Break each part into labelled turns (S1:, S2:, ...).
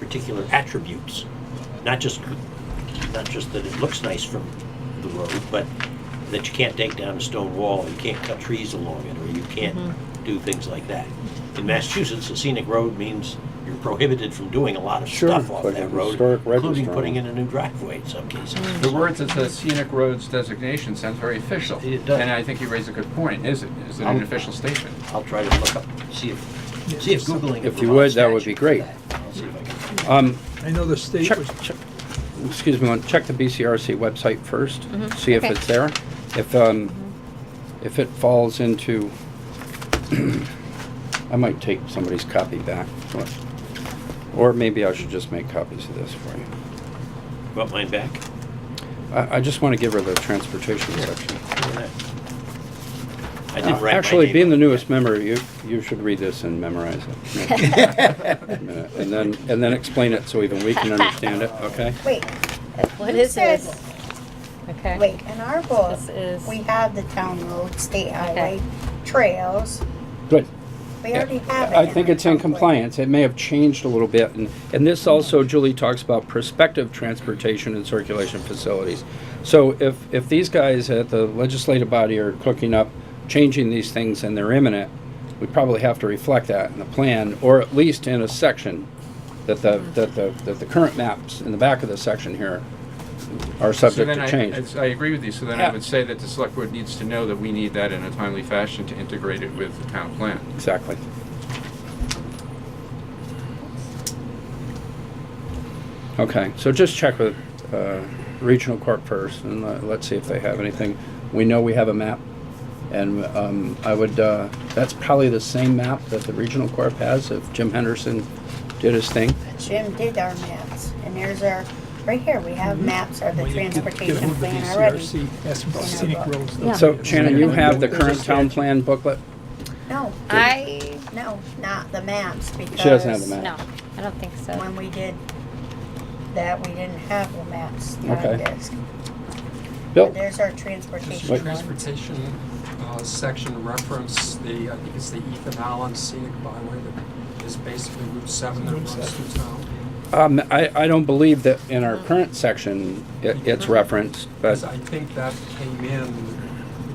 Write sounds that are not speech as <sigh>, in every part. S1: particular attributes, not just, not just that it looks nice from the road, but that you can't take down a stone wall, you can't cut trees along it, or you can't do things like that. In Massachusetts, a scenic road means you're prohibited from doing a lot of
S2: Sure,
S1: stuff
S2: it's
S1: off
S2: like a
S1: that road,
S2: historic
S1: including
S2: register.
S1: putting in a new driveway in some cases.
S3: The words that the scenic roads designation sounds very official.
S1: It does.
S3: And I think you raise a good point. Is it, is it an official statement?
S1: I'll try to look up, see if, see if Googling. the
S2: If you
S1: Vermont
S2: would, that would be
S1: statute for
S2: great.
S1: that. I'll see if I can-
S2: Um,
S4: I know the state
S2: check,
S4: was,
S2: check, excuse me, one- check the BCRC website first, see if
S5: okay.
S2: it's there. If, um, if it falls into, <clears throat> I might take somebody's copy back. What- Or maybe I should just make copies of this for you.
S1: Want mine back?
S2: I, I just want to give her the transportation section.
S1: I did
S2: Uh,
S1: write my
S2: Actually,
S1: name
S2: being the
S1: on it.
S2: newest member, you, you should read this and memorize it. And then, and then explain it so even we can understand it, okay?
S6: Wait,
S5: What is
S6: says-
S5: this? Okay.
S6: wait, in our book,
S5: This is-
S6: we have the town road, state highway, trails.
S2: Good.
S6: We already have it.
S2: I think
S6: our
S2: it's in
S6: template.
S2: compliance. It may have changed a little bit. And, and this also, Julie talks about prospective transportation and circulation facilities. So if, if these guys at the legislative body are cooking up, changing these things and they're imminent, we probably have to reflect that in the plan, or at least in a section that the, that the, that the current maps in the back of the section here are
S3: So
S2: subject
S3: then
S2: to
S3: I-
S2: change.
S3: it's- I agree with you. So then
S2: Yeah.
S3: I would say that the select board needs to know that we need that in a timely fashion to integrate it with the town plan.
S2: Exactly. Okay, so just check with uh, Regional Corp first, and let- let's see if they have anything. We know we have a map, and um, I would, uh, that's probably the same map that the Regional Corp has, if Jim Henderson did his thing.
S6: Jim did our maps, and there's our, right here, we
S2: Mm-hmm.
S6: have maps of the
S4: when you get get
S6: transportation
S4: hold of the
S6: plan already.
S4: DCRC, ask about scenic roads. they'll
S5: Yeah.
S4: tell
S2: So
S4: you.
S2: Shannon, you have the
S4: There's a
S2: current town
S4: statute.
S2: plan booklet?
S6: No,
S5: I,
S6: no, not the maps, because.
S2: She doesn't have the map.
S5: no, I don't think so.
S6: When we did that, we didn't have the maps on
S2: Okay. Oh.
S6: this.
S2: Bill?
S6: There's our
S7: Does
S6: transportation
S7: the
S6: one.
S7: transportation uh, section reference the, I think it's the Ethan Allen scenic byway that is basically Route 7 that
S4: Route
S7: runs through town?
S2: Um, I, I don't believe that in our current section it- it's referenced, but
S7: Because I think that came in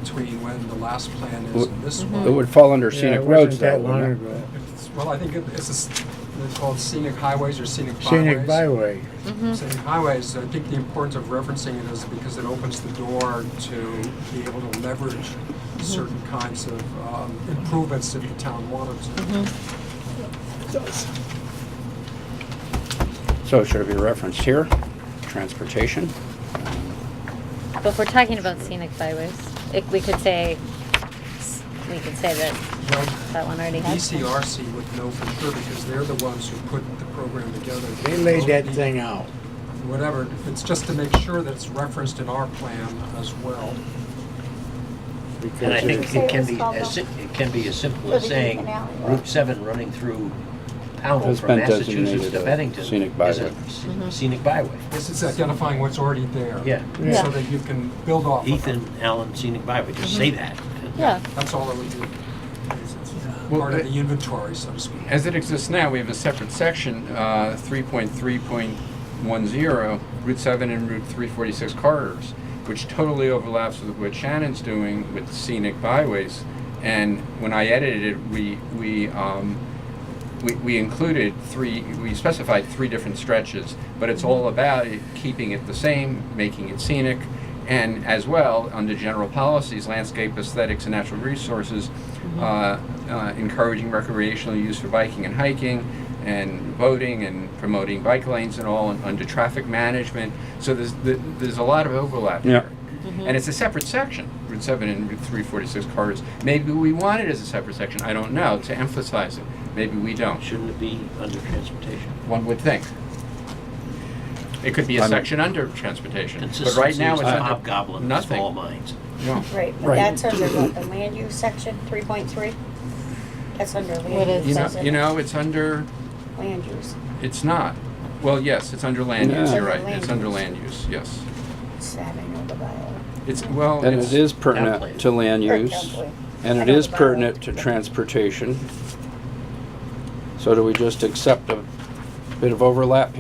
S7: between when the last plan is and this
S6: Mm-hmm.
S2: it
S7: one.
S2: would fall under
S8: Mm-hmm. Yeah,
S2: scenic
S8: it wasn't
S2: roads though.
S8: that
S2: wouldn't
S8: long
S2: it?
S8: ago.
S7: It's- Well, I think it- it's, a s- it's called scenic highways or scenic byways.
S8: Scenic byway.
S7: Saying highways, I think the importance of referencing it is because it opens the door to be able to leverage certain kinds of um, improvements if the town wanted to.
S2: So should it be referenced here? Transportation?
S5: But if we're talking about scenic byways, it, we could say, we could say that
S7: Well,
S5: that one already has. one.
S7: DCRC would know for sure because they're the ones who put the program together.
S8: They laid that thing out.
S7: Whatever, it's just to make sure that it's referenced in our plan as well.
S1: And I
S8: because
S1: think
S6: Say
S1: it
S6: it
S1: can
S6: was
S1: be,
S6: called
S1: as si- it can be as simple
S6: Well,
S1: as
S6: they
S1: saying
S6: keep an alley.
S1: Route 7 running through Pownell
S2: Has
S1: from
S2: been
S1: Massachusetts
S2: designated
S1: to
S2: a
S1: Bennington
S2: scenic
S1: is
S2: byway.
S1: a
S6: Mm-hmm.
S1: sc- scenic byway.
S7: This is identifying what's already there.
S1: Yeah.
S8: Yeah.
S7: So that you can build off
S6: Mm-hmm.
S7: of it.
S1: Ethan Allen Scenic Byway, just say that.
S5: Yeah,
S7: That's all it would do.
S3: Well,
S7: Part
S3: I-
S7: of the inventory, so to speak.
S3: As it exists now, we have a separate section, uh, 3.3.10, Route 7 and Route 346 corridors, which totally overlaps with what Shannon's doing with scenic byways. And when I edited it, we, we, um, we, we included three, we specified three different stretches, but it's all about it, keeping it the same, making it scenic, and as well, under general policies, landscape aesthetics and natural resources,
S1: Mm-hmm.
S3: uh, uh, encouraging recreational use for biking and hiking, and boating, and promoting bike lanes and all, and under traffic management. So there's, th- there's a lot of overlap
S2: Yeah.
S3: here.
S1: Mm-hmm.
S3: And it's a separate section, Route 7 and Route 346 corridors. Maybe we want it as a separate section, I don't know, to emphasize it. Maybe we don't.
S1: Shouldn't it be under transportation?
S3: One would think. It could be a
S2: I'm-
S3: section under transportation, but right
S1: Consistency
S3: now
S1: is
S3: it's
S1: the
S3: under
S1: hobgoblin of small
S3: nothing.
S1: minds.
S3: No.
S6: Right, but
S2: Right.
S6: that's under
S2: <clears throat>
S6: what, the land use section three point three? That's under
S5: What
S6: land
S5: is
S3: You
S6: use,
S3: know,
S6: isn't
S3: you
S6: it?
S3: know, it's under,
S6: Land use.
S3: it's not. Well, yes, it's under land
S2: No.
S3: use, you're right.
S6: Land
S3: It's under
S6: use.
S3: land use, yes.
S6: So I don't know the bylaw.
S3: It's, well,
S2: And it
S3: it's,
S2: is pertinent to land
S6: Or
S2: use,
S6: template.
S2: and
S6: I
S2: it
S6: know
S2: is
S6: the bylaw.
S2: pertinent to transportation. So do we just accept a bit of overlap